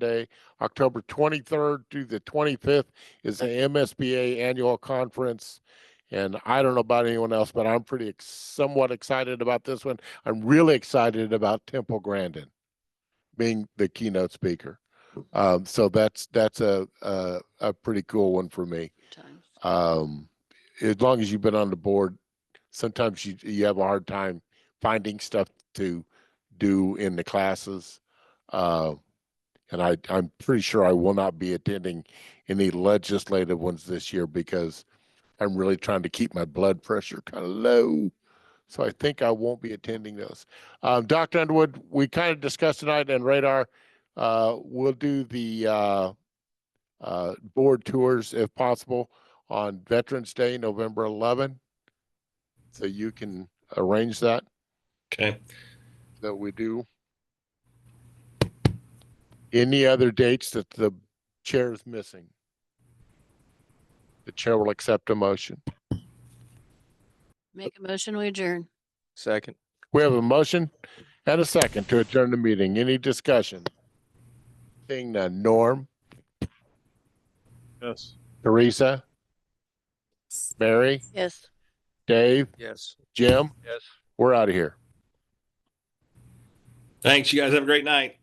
Day, October 23rd through the 25th is the MSBA Annual Conference. And I don't know about anyone else, but I'm pretty ex- somewhat excited about this one. I'm really excited about Temple Grandin being the keynote speaker. Um, so that's, that's a, a, a pretty cool one for me. Sometimes. Um, as long as you've been on the board, sometimes you, you have a hard time finding stuff to do in the classes. Uh, and I, I'm pretty sure I will not be attending any legislative ones this year because I'm really trying to keep my blood pressure kind of low. So I think I won't be attending those. Um, Dr. Underwood, we kind of discussed tonight and radar, uh, we'll do the, uh, uh, board tours if possible on Veterans Day, November 11. So you can arrange that, Okay. that we do. Any other dates that the chair is missing? The chair will accept a motion. Make a motion, we adjourn. Second. We have a motion and a second to adjourn the meeting. Any discussion? Seeing none. Norm, Yes. Teresa, Mary, Yes. Dave, Yes. Jim, Yes. we're out of here. Thanks. You guys have a great night.